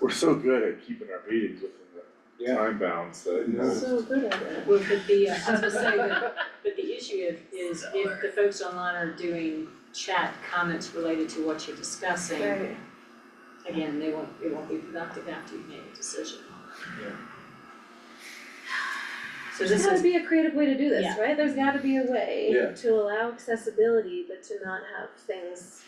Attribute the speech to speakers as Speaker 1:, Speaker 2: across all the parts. Speaker 1: We're so good at keeping our meetings within the
Speaker 2: Yeah.
Speaker 1: time bounds that, you know,
Speaker 3: So good at it.
Speaker 4: Well, but the, uh, I was gonna say, but, but the issue is, is if the folks online are doing chat comments related to what you're discussing,
Speaker 3: Right.
Speaker 4: again, they won't, it won't be productive after you've made a decision.
Speaker 1: Yeah.
Speaker 4: So
Speaker 3: There's
Speaker 4: this
Speaker 3: gotta
Speaker 4: is,
Speaker 3: be a creative way to do this,
Speaker 4: Yeah.
Speaker 3: right? There's gotta be a way
Speaker 2: Yeah.
Speaker 3: to allow accessibility, but to not have things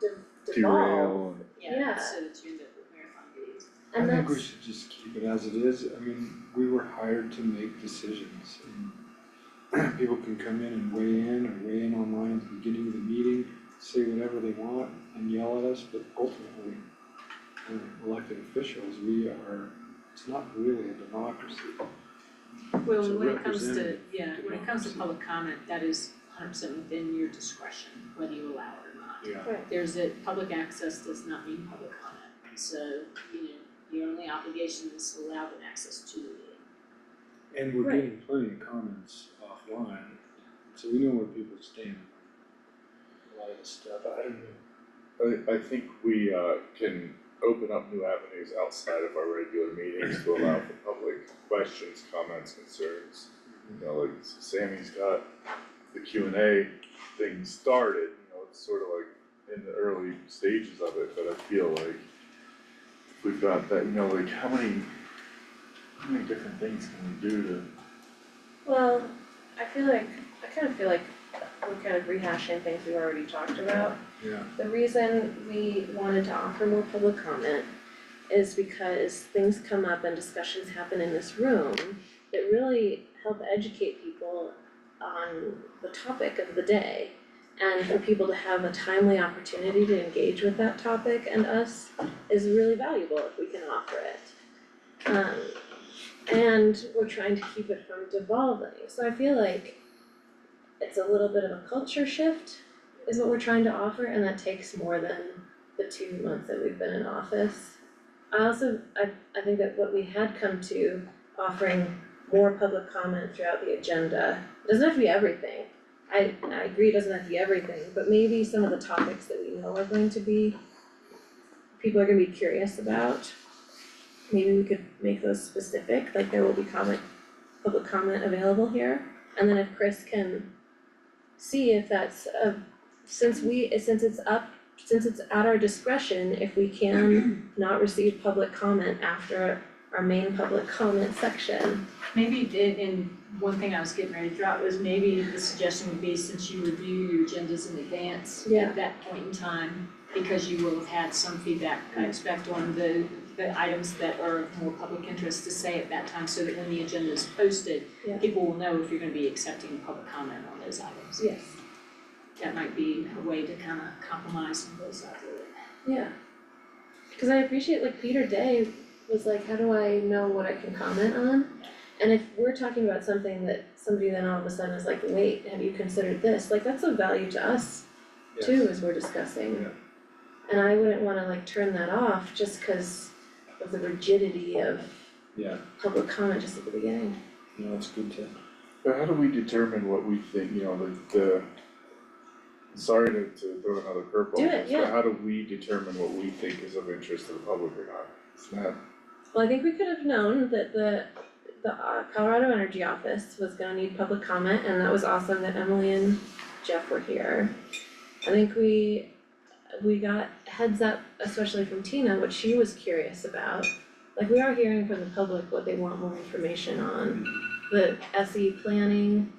Speaker 3: de- devolve.
Speaker 2: derail and.
Speaker 4: yeah,
Speaker 3: yeah.
Speaker 4: so that you end up with marathon videos.
Speaker 5: I
Speaker 3: And
Speaker 5: think we
Speaker 3: that's,
Speaker 5: should just keep it as it is, I mean, we were hired to make decisions and people can come in and weigh in or weigh in online at the beginning of the meeting, say whatever they want and yell at us, but ultimately, uh, elected officials, we are, it's not really a democracy.
Speaker 4: Well,
Speaker 5: It's a
Speaker 4: when it comes to,
Speaker 5: representative
Speaker 4: yeah, when it comes to
Speaker 5: democracy.
Speaker 4: public comment, that is hundred percent within your discretion, whether you allow it or not.
Speaker 1: yeah,
Speaker 3: right,
Speaker 4: There's a, public access does not mean public comment, so, you know, your only obligation is to allow them access to the meeting.
Speaker 5: And we're
Speaker 3: Right.
Speaker 5: getting plenty of comments offline, so we know where people stand on a lot of this stuff, I don't know.
Speaker 1: I, I think we, uh, can open up new avenues outside of our regular meetings to allow for public questions, comments, concerns. You know, like Sammy's got the Q and A thing started, you know, it's sort of like in the early stages of it, but I feel like we've got that, you know, like how many, how many different things can we do to
Speaker 3: well, I feel like, I kind of feel like we're kind of rehashing things we've already talked about.
Speaker 5: Yeah.
Speaker 3: The reason we wanted to offer more public comment is because things come up and discussions happen in this room that really help educate people on the topic of the day. And for people to have a timely opportunity to engage with that topic and us is really valuable if we can offer it. Um, and we're trying to keep it from devolving, so I feel like it's a little bit of a culture shift is what we're trying to offer, and that takes more than the two months that we've been in office. I also, I, I think that what we had come to, offering more public comment throughout the agenda, it doesn't have to be everything. I, I agree, it doesn't have to be everything, but maybe some of the topics that we know are going to be, people are gonna be curious about. Maybe we could make those specific, like there will be comment, public comment available here, and then if Chris can see if that's a, since we, since it's up, since it's at our discretion, if we can not receive public comment after our main public comment section.
Speaker 4: Maybe, and, and one thing I was getting ready to drop was maybe the suggestion would be since you review your agendas in advance
Speaker 3: Yeah.
Speaker 4: at that point in time, because you will have had some feedback, I expect, on the, the items that are of more public interest to say at that time, so that when the agenda is posted,
Speaker 3: Yeah.
Speaker 4: people will know if you're gonna be accepting public comment on those items.
Speaker 3: Yes.
Speaker 4: That might be a way to kind of compromise on both sides of it.
Speaker 3: Yeah. Cause I appreciate like Peter Day was like, how do I know what I can comment on? And if we're talking about something that somebody then all of a sudden is like, wait, have you considered this? Like that's of value to us too, as we're discussing.
Speaker 5: Yeah.
Speaker 3: And I wouldn't wanna like turn that off just cause of the rigidity of
Speaker 5: Yeah,
Speaker 3: public comment just at the beginning.
Speaker 5: no, it's good to
Speaker 1: But how do we determine what we think, you know, the the sorry to to throw another curveball,
Speaker 3: Do
Speaker 1: in
Speaker 3: it,
Speaker 1: this,
Speaker 3: yeah.
Speaker 1: but how do we determine what we think is of interest to the public or not? It's not,
Speaker 3: Well, I think we could have known that the the uh, Colorado Energy Office was gonna need public comment and that was awesome that Emily and Jeff were here. I think we we got heads up, especially from Tina, what she was curious about. Like we are hearing from the public what they want more information on, the SE planning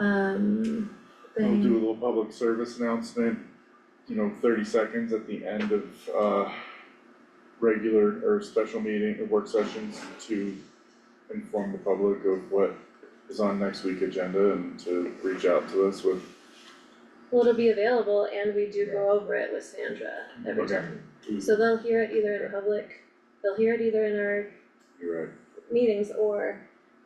Speaker 3: um
Speaker 1: we'll
Speaker 3: thing.
Speaker 1: do a little public service announcement, you know, thirty seconds at the end of uh regular or special meeting or work sessions to inform the public of what is on next week agenda and to reach out to us with
Speaker 3: Well, it'll be available and we do go over it with Sandra every
Speaker 1: Okay.
Speaker 3: time. So they'll hear it either in public, they'll hear it either in our
Speaker 1: you're right,
Speaker 3: meetings or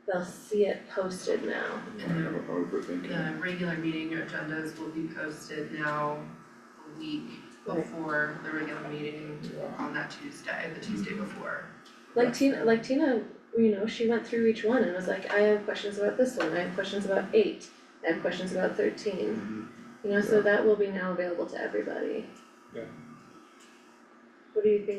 Speaker 3: they'll see it posted now.
Speaker 1: I am overthinking.
Speaker 6: The uh, regular meeting agendas will be posted now a week
Speaker 3: Right.
Speaker 6: before the regular meeting on that Tuesday, the Tuesday before.
Speaker 3: Like
Speaker 6: That's
Speaker 3: Tina,
Speaker 6: fair.
Speaker 3: like Tina, you know, she went through each one and was like, I have questions about this one, I have questions about eight, I have questions about thirteen. You know, so that will be now available to everybody.
Speaker 5: Yeah.
Speaker 3: What do you think